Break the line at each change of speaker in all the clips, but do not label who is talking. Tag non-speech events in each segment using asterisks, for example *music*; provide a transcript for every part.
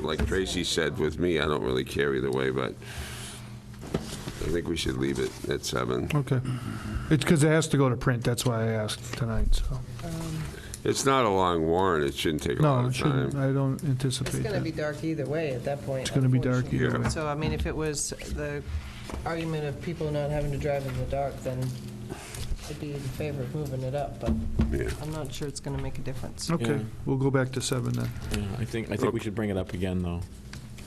like Tracy said with me, I don't really care either way, but I think we should leave it at seven.
Okay.
Mm-hmm.
It's because it has to go to print, that's why I asked tonight, so.
It's not a long warrant, it shouldn't take a lot
No, it
of
shouldn't,
time.
I don't anticipate
It's going to be
that.
dark either way at that point. It's
gonna be dark either
Yeah. way.
So, I mean, if it was the argument of people not having to drive in the dark, then I'd be in favor of moving it up, but
Yeah.
I'm not sure it's going to make a difference.
Okay,
Yeah.
we'll go back to seven then.
Yeah, I think, I think we should bring it up again, though,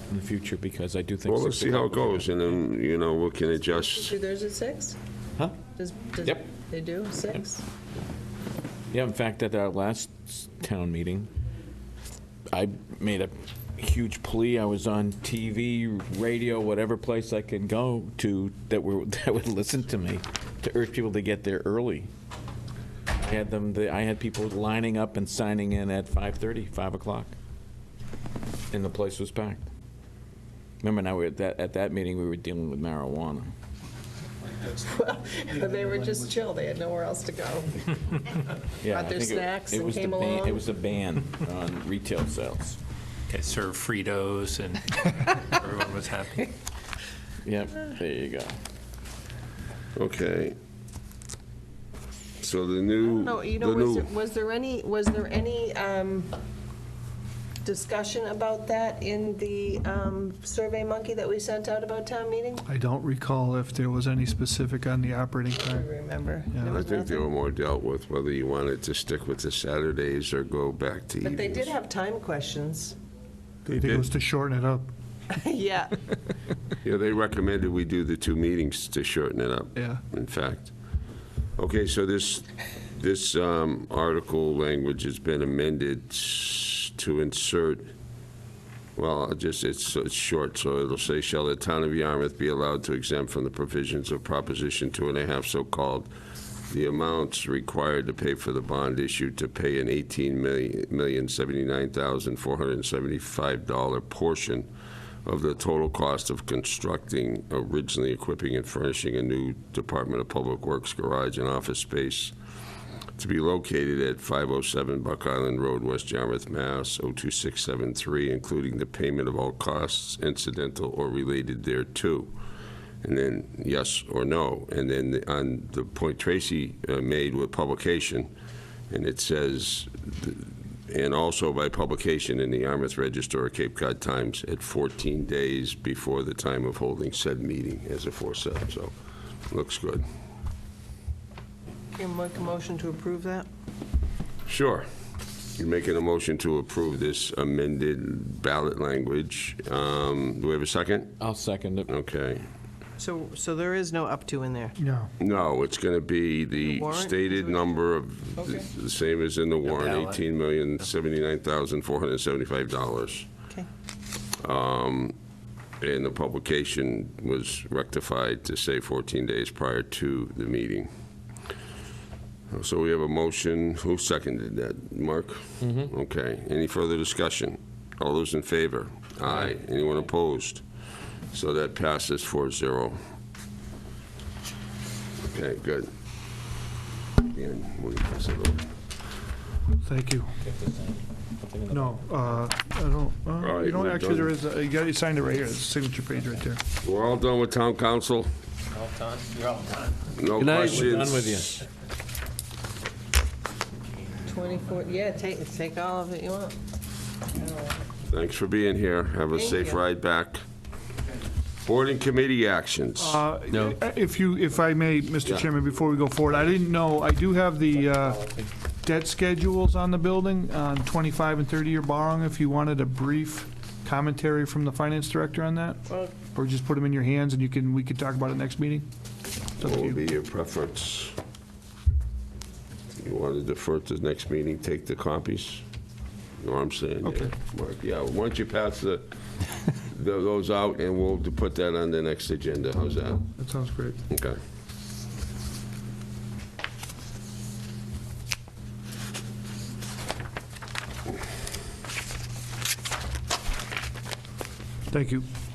in the future, because I do think.
Well, let's
six
see how it
o'clock-
goes, and then, you know, we can adjust.
Do theirs at six?
Huh?
Does, does,
Yep.
they do, six?
Yeah, in fact, at our last s- town meeting, I made a huge plea. I was on TV, radio, whatever place I could go to that were, *laughs* that would listen to me, to urge people to get there early. I had them, I had people lining up and signing in at 5:30, 5 o'clock, and the place was packed. Remember now, we were at that, at that meeting, we were dealing with marijuana.
They were just chill, they had nowhere else to go.
Yeah,
Brought their
I think it-
snacks
it
and
was the
came
ban-
along.
It was a ban on retail sales.
They served Fritos and everyone was happy.
Yep, there you go.
Okay. So the new,
No,
the
you know, was
new,
there, was there any, was there any um, discussion about that in the um, Survey Monkey that we sent out about town meeting?
I don't recall if there was any specific on the operating
I
time.
remember.
Yeah.
There
I
was
think they
nothing.
were more dealt with, whether you wanted to stick with the Saturdays or go back to evenings.
But they did have time *laughs* questions.
They
I think it
did.
was to shorten it up.
Yeah,
Yeah, they recommended we do the two meetings to shorten it up.
Yeah.
In fact. Okay, so this, this um, article language has been amended s- to insert, well, I'll just, it's, it's short, so it'll say, shall the town of Yarmouth be allowed to exempt from the provisions of Proposition Two and a Half, so-called, the amounts required to pay for the bond issue to pay an eighteen million seventy-nine thousand four hundred and seventy-five dollar portion of the total cost of constructing, originally equipping and furnishing a new Department of Public Works garage and office space to be located at 507 Buck Island Road, West Yarmouth, Mass. 02673, including the payment of all costs incidental or related thereto. And then yes or no. And then on the point Tracy uh, made with publication, and it says, and also by publication in the Yarmouth Register or Cape Cod Times at 14 days before the time of holding said meeting as aforesaid. So, looks good.
can make a motion to approve that?
Sure. You're making a motion to approve this amended ballot language. Um, Do we have a second?
I'll second it.
Okay.
So, so there is no up to in there?
Yeah.
No, it's going to be the
warrant?
stated number of,
Okay.
the same as in the warrant,
ballot.
$18,079,475.
Okay.
And the publication was rectified to say 14 days prior to the meeting. So we have a motion. Who seconded that? Mark? Mm-hmm. Okay. Any further discussion? All those in favor? Aye. Anyone opposed? So that passes 4-0. Okay, good. And we'll pass it over.
Thank you. No, uh, I don't, uh,
right,
you don't,
we're
actually, there
done.
is, a- you got, you signed it right here, it's the signature page right there.
We're all done with town council? All done? You're all done. No questions?
Done with you.
24, yeah, take, take all of it you want.
Thanks for being here. Have a
Thank
safe
you.
ride back. Board and committee actions.
Uh, If you, if I may, Mr.
Yeah.
Chairman, before we go forward, I didn't know, I do have the uh, debt schedules on the building, on 25 and 30-year borrowing, if you wanted a brief commentary from the finance director on that,
Well,
or just put them in your hands and you can, we could talk about it next meeting. It's up
What
to
would
you.
be your preference? You want to defer to the next meeting, take the copies? You know what I'm saying? yeah.
Okay.
Mark, Yeah, why don't you pass the, the- those out, and we'll put that on the next agenda. How's that?
That sounds great.
Okay.
Thank you.